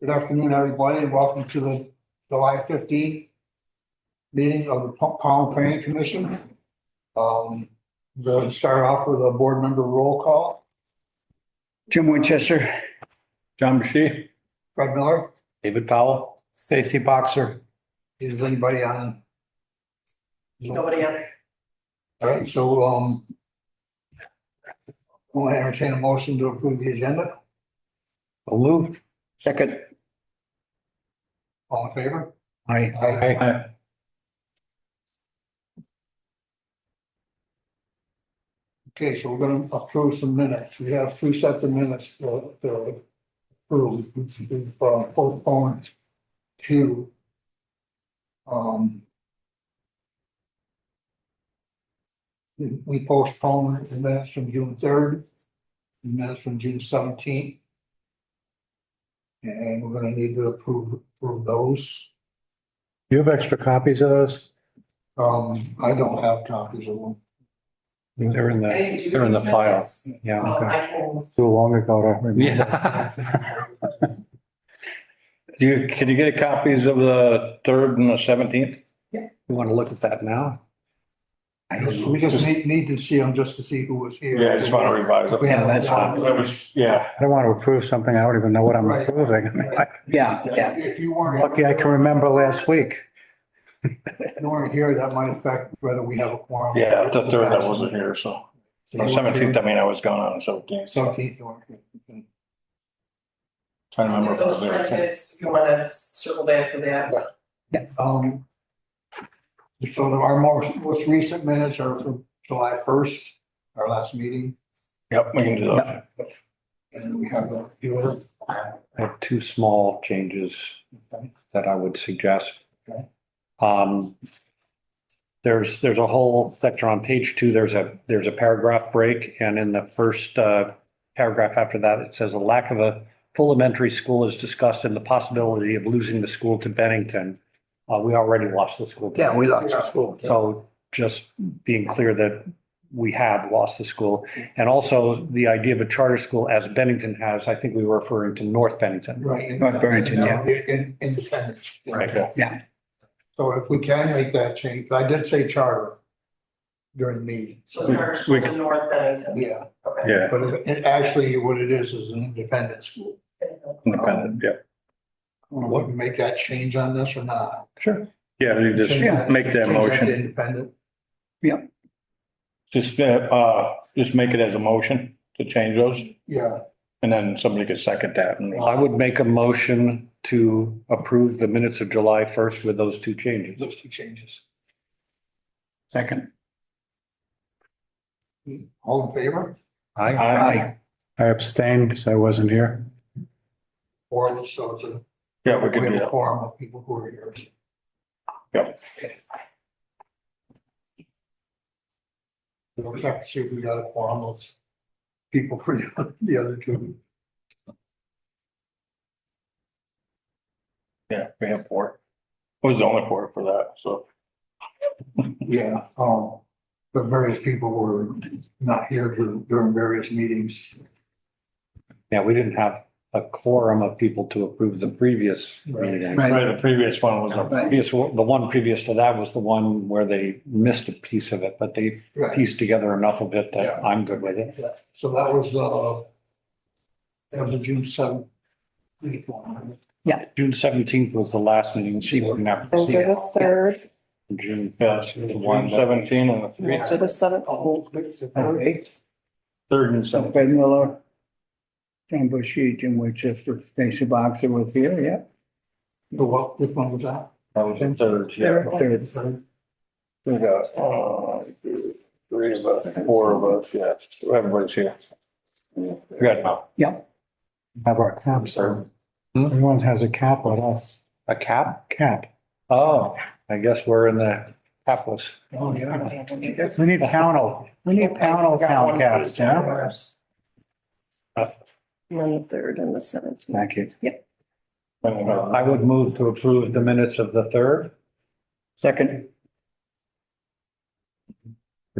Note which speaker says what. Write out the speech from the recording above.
Speaker 1: Good afternoon, everybody, and welcome to the July fifteenth meeting of the Pa- Powell Planning Commission. Um, we'll start off with a board member roll call.
Speaker 2: Jim Winchester.
Speaker 3: John Bashy?
Speaker 1: Fred Miller,
Speaker 3: David Powell?
Speaker 4: Stacy Boxer.
Speaker 1: is anybody on?
Speaker 5: Nobody else.
Speaker 1: All right, so, um, we'll entertain a motion to approve the agenda.
Speaker 4: So moved.
Speaker 2: Second.
Speaker 1: All in favor?
Speaker 2: Aye.
Speaker 1: Aye.
Speaker 3: Aye.
Speaker 1: Okay, so we're gonna approve some minutes. We have three sets of minutes to to approve, We've, uh, postponed to um we- we postponed the minutes from June third, the minutes from June seventeenth. And we're gonna need to approve approve those.
Speaker 4: You have extra copies of those?
Speaker 1: Um, I don't have copies of them.
Speaker 3: They're in the,
Speaker 5: Hey, do you
Speaker 3: Uh, they're in the
Speaker 5: guys
Speaker 3: file.
Speaker 5: notice?
Speaker 3: Yeah.
Speaker 5: Um,
Speaker 3: okay.
Speaker 5: I can,
Speaker 4: Too long ago to remember.
Speaker 3: Yeah. Do you, can you get copies of the third and the seventeenth?
Speaker 5: Yeah.
Speaker 3: You want to look at that now?
Speaker 2: I don't know.
Speaker 1: We just need need to see them just to see who was here.
Speaker 6: Yeah, I just want to revise it.
Speaker 1: We
Speaker 2: Yeah,
Speaker 1: have
Speaker 2: that's
Speaker 1: that.
Speaker 6: That was, yeah,
Speaker 4: I don't want to approve something I don't even know what I'm
Speaker 1: Right.
Speaker 4: approving. I mean, like,
Speaker 2: Yeah, yeah.
Speaker 1: If you weren't.
Speaker 4: Lucky I can remember last week.
Speaker 1: If you weren't here, that might affect whether we have a quorum.
Speaker 6: yeah, the third I wasn't here, so.
Speaker 1: So you weren't
Speaker 6: Seventeenth,
Speaker 1: here.
Speaker 6: I mean, I was gone on the seventeenth.
Speaker 1: Seventeenth, you weren't here. Okay.
Speaker 6: Trying to
Speaker 5: I'll
Speaker 6: remember
Speaker 5: get
Speaker 6: if I
Speaker 5: those
Speaker 6: was there.
Speaker 5: minutes, if you wanna circle back to that.
Speaker 1: Um. So our most, most recent minutes are from July first, our last meeting,
Speaker 6: Yep, we can do that.
Speaker 1: and we have a few other.
Speaker 3: I have two small changes that I would suggest.
Speaker 1: Okay.
Speaker 3: Um, there's, there's a whole section on page two, there's a, there's a paragraph break, and in the first uh, paragraph after that, it says a lack of a full elementary school is discussed and the possibility of losing the school to Bennington. Uh, we already lost the school. to
Speaker 2: Yeah, we lost the school.
Speaker 3: so just being clear that we have lost the school. And also the idea of a charter school as Bennington has, I think we were referring to North Bennington.
Speaker 1: Right. in-
Speaker 2: North Barrington, yeah.
Speaker 1: In, independence.
Speaker 3: Right.
Speaker 1: So if we can make that change, I did say charter during the meeting,
Speaker 5: So charter school in North Bennington.
Speaker 1: yeah,
Speaker 5: Okay.
Speaker 6: Yeah,
Speaker 1: but it- it actually what it is, is an independent school.
Speaker 6: independent, yeah.
Speaker 1: Would make that change on this or not?
Speaker 6: Yeah, you just make that
Speaker 1: Change to
Speaker 6: motion.
Speaker 1: Independent,
Speaker 6: Just, uh, uh, just make it as a motion to change those
Speaker 1: yeah,
Speaker 6: and then somebody could second that. and-
Speaker 3: I would make a motion to approve the minutes of July 1st with those two changes.
Speaker 1: those two changes.
Speaker 2: Second.
Speaker 1: All in favor?
Speaker 3: Aye.
Speaker 6: Aye.
Speaker 2: Aye.
Speaker 4: I abstained because I wasn't here.
Speaker 1: Or so it's a,
Speaker 6: Yeah, we
Speaker 1: we
Speaker 6: could do
Speaker 1: have a
Speaker 6: that.
Speaker 1: forum of people who are here.
Speaker 6: Yep.
Speaker 1: We'll have to see if we got a forum of people for the the other two.
Speaker 6: Yeah, we have four. It was the only four for that, so.
Speaker 1: Yeah. Um, but various people were not here during during various meetings.
Speaker 3: Yeah, we didn't have a quorum of people to approve the previous meeting.
Speaker 2: Right.
Speaker 6: Right, the previous one was a
Speaker 3: Previous, the one previous to that was the one where they missed a piece of it, but they
Speaker 1: Right.
Speaker 3: pieced together enough of it that I'm good with it.
Speaker 1: So that was, uh, that was the June seventh. June
Speaker 3: June 17th was the last meeting. See, we're gonna have-
Speaker 7: Those are the third,
Speaker 3: June.
Speaker 6: Yeah,
Speaker 3: One
Speaker 6: June
Speaker 3: that-
Speaker 6: seventeen and the three,
Speaker 7: those are the seventh.
Speaker 2: Okay.
Speaker 6: third and
Speaker 2: So
Speaker 6: seventeen.
Speaker 2: Fred Miller. John Bushy, Jim Winchester, Stacy Boxer was here, yeah.
Speaker 1: So what, which one was that?
Speaker 6: That was the third, yeah.
Speaker 2: Third, third.
Speaker 6: We got, uh, three of us, four of us, yeah, everybody's here. Good.
Speaker 4: Have our caps. on. Everyone has a cap on us.
Speaker 3: Hmm? A cap?
Speaker 4: Cap.
Speaker 3: Oh, I guess we're in the capless.
Speaker 1: Oh, yeah.
Speaker 4: We need panel. We need panel town caps, you know?
Speaker 7: And then the third and the seventeenth.
Speaker 4: Thank you.
Speaker 3: I would move to approve the minutes of the third.
Speaker 2: Second.